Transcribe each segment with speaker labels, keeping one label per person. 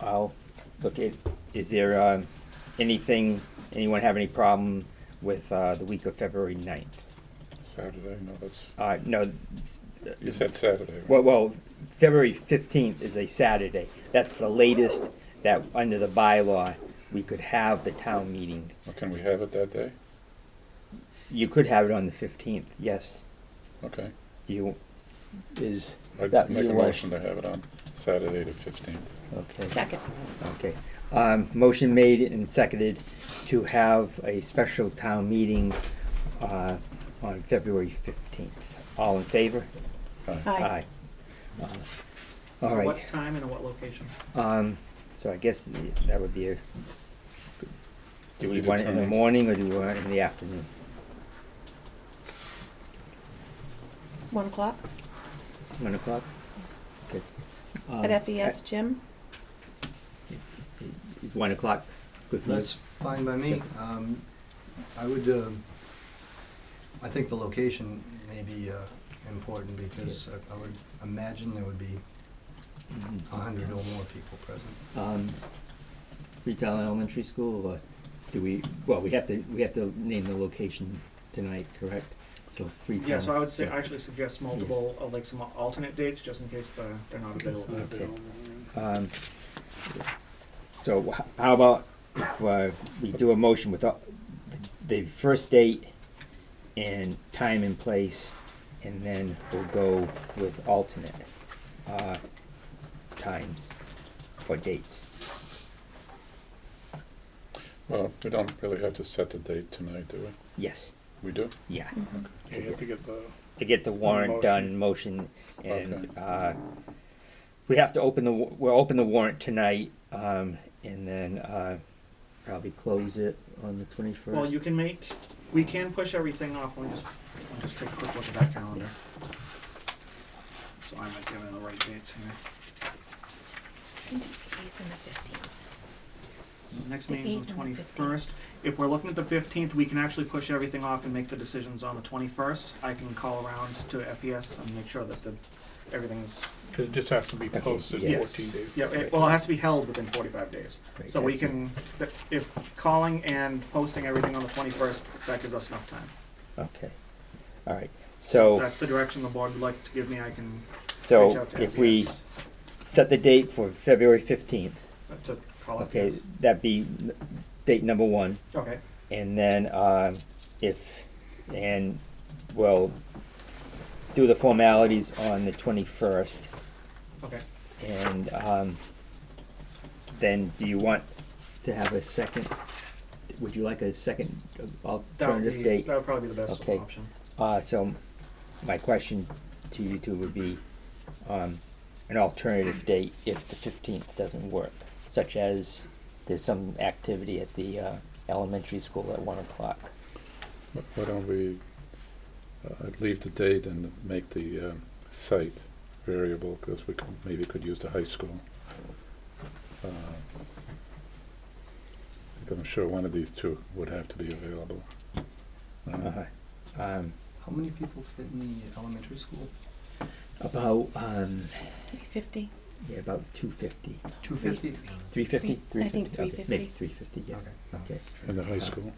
Speaker 1: I'll look at, is there, um, anything, anyone have any problem with, uh, the week of February ninth?
Speaker 2: Saturday, no, that's,
Speaker 1: Uh, no, it's-
Speaker 2: you said Saturday. right?
Speaker 1: well, well, February fifteenth is a Saturday. That's the latest that, under the bylaw, we could have the town meeting.
Speaker 2: Well, Can we have it that day?
Speaker 1: You could have it on the fifteenth, yes.
Speaker 2: Okay.
Speaker 1: Do you, is
Speaker 2: I'd
Speaker 1: that
Speaker 2: make
Speaker 1: you
Speaker 2: a
Speaker 1: want-
Speaker 2: motion to have it on Saturday the fifteenth.
Speaker 1: Okay,
Speaker 3: Second.
Speaker 1: okay. Um, motion made and seconded to have a special town meeting, uh, on February fifteenth. All in favor?
Speaker 3: Aye.
Speaker 1: Aye. Uh, All
Speaker 4: What
Speaker 1: right,
Speaker 4: time and at what location?
Speaker 1: um, so I guess the- that would be a, do we
Speaker 2: you
Speaker 1: want it in the
Speaker 2: determine?
Speaker 1: morning or do we want it in the afternoon?
Speaker 3: One o'clock
Speaker 1: One o'clock? Okay. Um,
Speaker 3: at E FES gym.
Speaker 1: Is one o'clock good for you?
Speaker 5: That's fine by me. Um, I would, um, I think the location may be uh, important because I- I would imagine there would be
Speaker 1: Mhm.
Speaker 5: a hundred or more people present.
Speaker 1: um, Freetown Elementary School, or do we, well, we have to, we have to name the location tonight, correct? So Freetown.
Speaker 4: Yeah, so I would say,
Speaker 1: yeah.
Speaker 4: actually suggest multiple, uh, like some alternate dates, just in case they're, they're not available.
Speaker 2: Okay.
Speaker 1: Um, So h- how about if uh, we do a motion with uh, the first date and time and place, and then we'll go with alternate uh, times or dates.
Speaker 2: Well, we don't really have to set the date tonight, do we?
Speaker 1: Yes,
Speaker 2: We do?
Speaker 1: yeah.
Speaker 6: Yeah, you have to get the,
Speaker 1: to get the warrant done, motion, and,
Speaker 2: Okay.
Speaker 1: uh, we have to open the, wa- we'll open the warrant tonight, um, and then, uh, probably close it on the twenty-first.
Speaker 4: Well, you can make, we can push everything off, let me just, let me just take a quick look at that
Speaker 1: Oh,
Speaker 4: calendar. So I might give it the right dates here.
Speaker 3: Eighth and the fifteenth.
Speaker 4: So next
Speaker 3: The
Speaker 4: meeting's
Speaker 3: eighth
Speaker 4: the
Speaker 3: and the
Speaker 4: twenty-first. If we're looking at the fifteenth, we can actually push everything off and make the decisions on the twenty-first. I can call around to FES and make sure that the, everything's
Speaker 6: because it just has to be posted
Speaker 1: yes.
Speaker 6: fourteen days.
Speaker 4: Yeah, it, well, it has to be held within forty-five days.
Speaker 1: Right,
Speaker 4: So we
Speaker 1: that's
Speaker 4: can, th- if calling and posting everything on the twenty-first, that gives us enough time.
Speaker 1: Okay, all right,
Speaker 4: If
Speaker 1: so,
Speaker 4: that's the direction the board would like to give me, I can reach
Speaker 1: so
Speaker 4: out to
Speaker 1: if we
Speaker 4: FES.
Speaker 1: set the date for February fifteenth,
Speaker 4: uh, To call
Speaker 1: okay,
Speaker 4: FES.
Speaker 1: that'd be n- date number one,
Speaker 4: Okay,
Speaker 1: and then, um, if, and we'll do the formalities on the twenty-first,
Speaker 4: okay.
Speaker 1: And um, then, do you want to have a second, would you like a second
Speaker 4: That would
Speaker 1: alternative
Speaker 4: be,
Speaker 1: date?
Speaker 4: that would probably be the best
Speaker 1: Okay.
Speaker 4: option.
Speaker 1: Uh, So my question to you two would be um, an alternative date if the 15th doesn't work, such as there's some activity at the uh, elementary school at 1 o'clock.
Speaker 2: Wh- Why don't we uh, leave the date and make the um, site variable, because we could, maybe could use the high school. Uh, Because I'm sure one of these two would have to be available. Uh,
Speaker 1: Uh-huh. Um,
Speaker 5: How many people fit in the elementary school?
Speaker 1: About, um,
Speaker 3: Three fifty.
Speaker 1: yeah, about 250,
Speaker 5: Two fifty?
Speaker 1: 350?
Speaker 3: I think
Speaker 1: 350, okay, Maybe
Speaker 3: 350.
Speaker 1: 350, yeah.
Speaker 5: Okay. no.
Speaker 1: Okay.
Speaker 2: In the high school?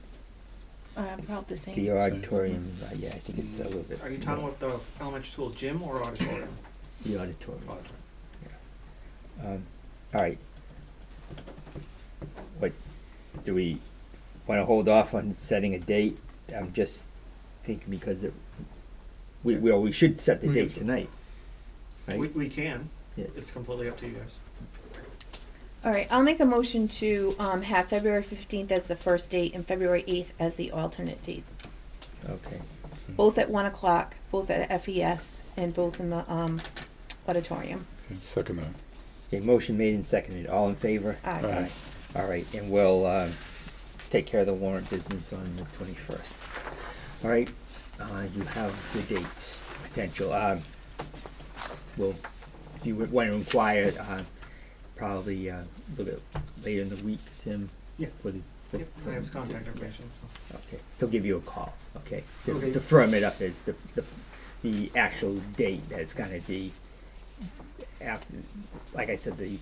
Speaker 3: Uh, about the
Speaker 1: The
Speaker 3: same.
Speaker 1: auditorium, uh, yeah, I think it's a little bit.
Speaker 4: Are you talking
Speaker 1: more.
Speaker 4: about the elementary school gym or auditorium?
Speaker 1: The auditorium.
Speaker 4: Auditorium.
Speaker 1: Um, all right. What, do we wanna hold off on setting a date? I'm just thinking because it, we, well, we should set the
Speaker 6: We can
Speaker 1: date
Speaker 6: set-
Speaker 1: tonight.
Speaker 4: We,
Speaker 1: Right?
Speaker 4: we can.
Speaker 1: Yeah.
Speaker 4: It's completely up to you guys.
Speaker 3: All right, I'll make a motion to um, have February fifteenth as the first date and February eighth as the alternate date.
Speaker 1: Okay,
Speaker 3: Both at one o'clock, both at FES, and both in the um, auditorium.
Speaker 2: Okay, Second that.
Speaker 1: okay, motion made and seconded, all in favor?
Speaker 3: Aye.
Speaker 2: Aye.
Speaker 1: All right, and we'll, um, take care of the warrant business on the twenty-first. All right, uh, you have the dates, potential, um, well, if you would wanna inquire, uh, probably, uh, a little bit later in the week, Tim?
Speaker 4: Yeah.
Speaker 1: For the. for-
Speaker 4: Yep, I have his contact information, so.
Speaker 1: Okay, he'll give you a call, okay? To-
Speaker 5: Okay.
Speaker 1: To firm it up is the, the, the actual date that's gonna be after, like I said, the